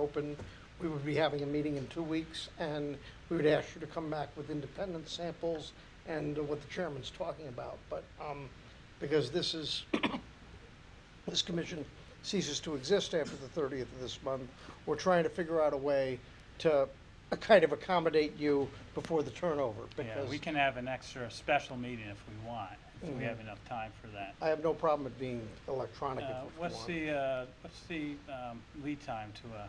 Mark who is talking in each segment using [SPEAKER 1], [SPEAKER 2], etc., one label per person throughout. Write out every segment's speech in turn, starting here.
[SPEAKER 1] open, we would be having a meeting in two weeks, and we would ask you to come back with independent samples and what the chairman's talking about, but, um, because this is, this commission ceases to exist after the thirtieth of this month, we're trying to figure out a way to kind of accommodate you before the turnover,
[SPEAKER 2] Yeah,
[SPEAKER 1] because Mm-hmm.
[SPEAKER 2] we can have an extra special meeting if we want, if we have enough time for that.
[SPEAKER 1] I have no problem with being electronic if
[SPEAKER 2] Uh,
[SPEAKER 1] you want.
[SPEAKER 2] What's the, uh, what's the um, lead time to a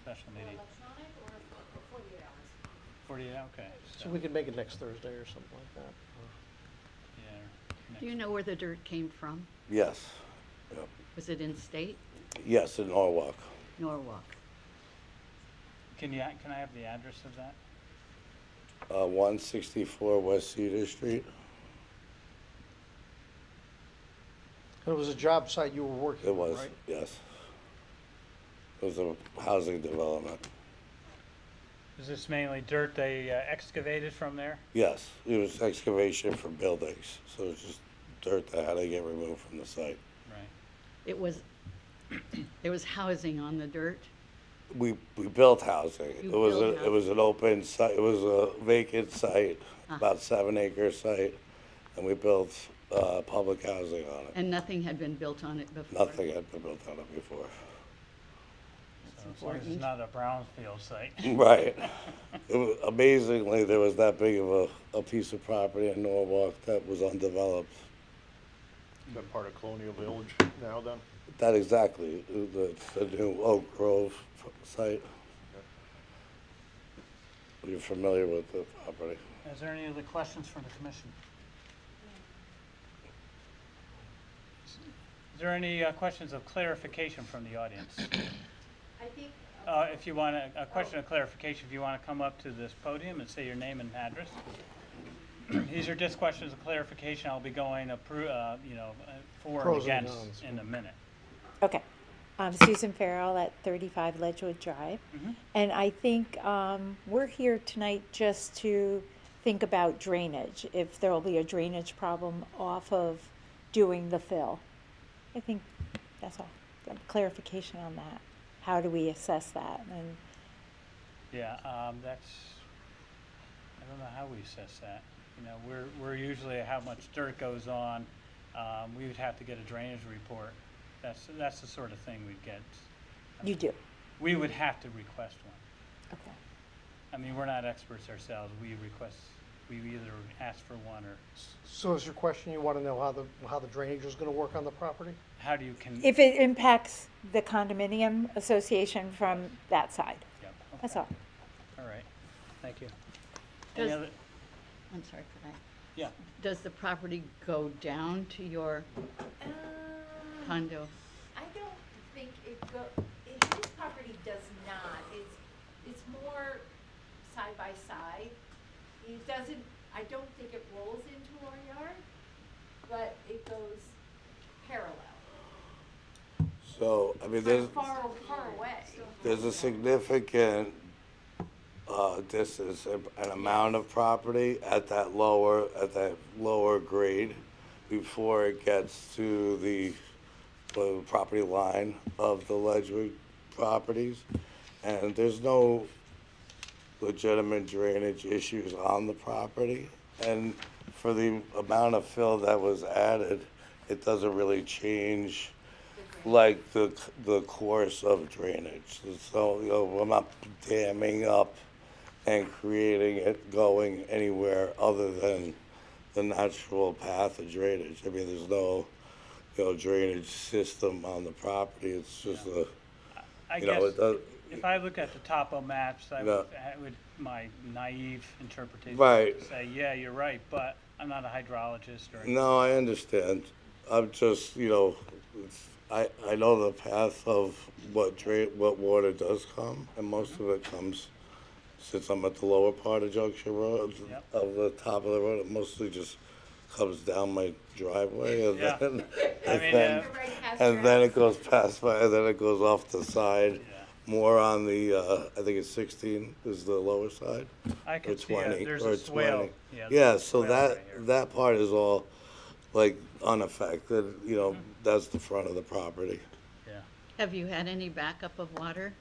[SPEAKER 2] special meeting?
[SPEAKER 3] Electronic or forty-eight hours?
[SPEAKER 2] Forty-eight, okay.
[SPEAKER 1] So we could make it next Thursday or something like that.
[SPEAKER 2] yeah,
[SPEAKER 4] Do
[SPEAKER 2] next-
[SPEAKER 4] you know where the dirt came from?
[SPEAKER 5] Yes,
[SPEAKER 4] Was it in state,
[SPEAKER 5] yes, in Norwalk.
[SPEAKER 4] Norwalk?
[SPEAKER 2] Can you, can I have the address of that?
[SPEAKER 5] Uh, 164 West Cedar Street.
[SPEAKER 1] And it was a job site you were working
[SPEAKER 5] It
[SPEAKER 1] on, right?
[SPEAKER 5] was, yes. It was a housing development.
[SPEAKER 2] Is this mainly dirt they uh, excavated from there?
[SPEAKER 5] Yes, it was excavation for buildings, so it's just dirt that had to get removed from the site.
[SPEAKER 2] Right.
[SPEAKER 4] It was, there was housing on the dirt?
[SPEAKER 5] We, we built housing. It
[SPEAKER 4] You
[SPEAKER 5] was,
[SPEAKER 4] built
[SPEAKER 5] a- it was an open site, it was a vacant site,
[SPEAKER 4] Uh-huh.
[SPEAKER 5] about seven acre site, and we built, uh, public housing on it.
[SPEAKER 4] And nothing had been built on it before?
[SPEAKER 5] Nothing had been built on it before.
[SPEAKER 2] So As long as it's
[SPEAKER 4] important.
[SPEAKER 2] not a brownfield site.
[SPEAKER 5] Right. It wa- Amazingly, there was that big of a, a piece of property in Norwalk that was undeveloped.
[SPEAKER 6] That part of Colonial Village now then?
[SPEAKER 5] That exactly, the, the new Oak Grove site. You're familiar with the property.
[SPEAKER 2] Is there any other questions from the commission? Is there any uh, questions of clarification from the audience?
[SPEAKER 3] I think, Oh.
[SPEAKER 2] Uh, If you want, a a question of clarification, if you want to come up to this podium and say your name and address. These are just questions of clarification. I'll be going, appro- uh, you know, uh, for and
[SPEAKER 1] Pros and
[SPEAKER 2] against
[SPEAKER 1] cons.
[SPEAKER 2] in a minute.
[SPEAKER 7] Okay. I'm Susan Farrell at 35 Ledgewood Drive. And I think um, we're here tonight just to think about drainage, if there will be a drainage problem off of doing the fill. I think that's all. Clarification on that. How do we assess that? And
[SPEAKER 2] Yeah, um, that's, I don't know how we assess that. You know, we're, we're usually how much dirt goes on. Um, we would have to get a drainage report. That's, that's the sort of thing we'd get.
[SPEAKER 7] you do.
[SPEAKER 2] We would have to request one.
[SPEAKER 7] Okay.
[SPEAKER 2] I mean, we're not experts ourselves. We request, we either ask for one or
[SPEAKER 1] So is your question, you want to know how the, how the drainage is going to work on the property?
[SPEAKER 2] how do you can?
[SPEAKER 7] If it impacts the condominium association from that side.
[SPEAKER 2] Yeah,
[SPEAKER 7] That's
[SPEAKER 2] okay.
[SPEAKER 7] all.
[SPEAKER 2] All right, thank you. Any
[SPEAKER 4] Does,
[SPEAKER 2] other,
[SPEAKER 4] I'm sorry for that.
[SPEAKER 2] yeah,
[SPEAKER 4] Does the property go down to your
[SPEAKER 3] um,
[SPEAKER 4] condo?
[SPEAKER 3] I don't think it go, it- his property does not, it's, it's more side by side. It doesn't, I don't think it rolls into our yard, but it goes parallel,
[SPEAKER 5] So, I mean,
[SPEAKER 3] kind
[SPEAKER 5] there's,
[SPEAKER 3] of far, far away.
[SPEAKER 5] there's a significant, uh, distance and an amount of property at that lower, at that lower grade before it gets to the, the property line of the Ledgewood properties. And there's no legitimate drainage issues on the property. And for the amount of fill that was added, it doesn't really change like the, the course of drainage. So, you know, we're not damming up and creating it going anywhere other than the natural path of drainage. I mean, there's no, you know, drainage system on the property. It's just a,
[SPEAKER 2] I
[SPEAKER 5] you know,
[SPEAKER 2] guess,
[SPEAKER 5] it does.
[SPEAKER 2] if I look at the topo maps, I
[SPEAKER 5] No.
[SPEAKER 2] would, I would, my naive interpretation
[SPEAKER 5] Right.
[SPEAKER 2] would say, yeah, you're right, but I'm not a hydrologist or,
[SPEAKER 5] No, I understand. I'm just, you know, it's, I, I know the path of what dra what water does come, and most of it comes, since I'm at the lower part of Junction Road,
[SPEAKER 2] Yep.
[SPEAKER 5] of the top of the road, it mostly just comes down my driveway, and
[SPEAKER 2] Yeah.
[SPEAKER 5] then,
[SPEAKER 2] I
[SPEAKER 5] and
[SPEAKER 2] mean,
[SPEAKER 5] then,
[SPEAKER 2] uh,
[SPEAKER 3] Right past your
[SPEAKER 5] and then
[SPEAKER 3] house.
[SPEAKER 5] it goes past my, and then it goes off the side,
[SPEAKER 2] Yeah.
[SPEAKER 5] more on the, uh, I think it's sixteen is the lower side
[SPEAKER 2] I
[SPEAKER 5] or
[SPEAKER 2] can see, uh,
[SPEAKER 5] twenty,
[SPEAKER 2] there's
[SPEAKER 5] or
[SPEAKER 2] a swale.
[SPEAKER 5] twenty.
[SPEAKER 2] there's a
[SPEAKER 5] Yeah, so
[SPEAKER 2] swale
[SPEAKER 5] that,
[SPEAKER 2] right here.
[SPEAKER 5] that part is all like unaffected,
[SPEAKER 2] Mm-hmm.
[SPEAKER 5] you know, that's the front of the property.
[SPEAKER 2] Yeah.
[SPEAKER 4] Have you had any backup of water?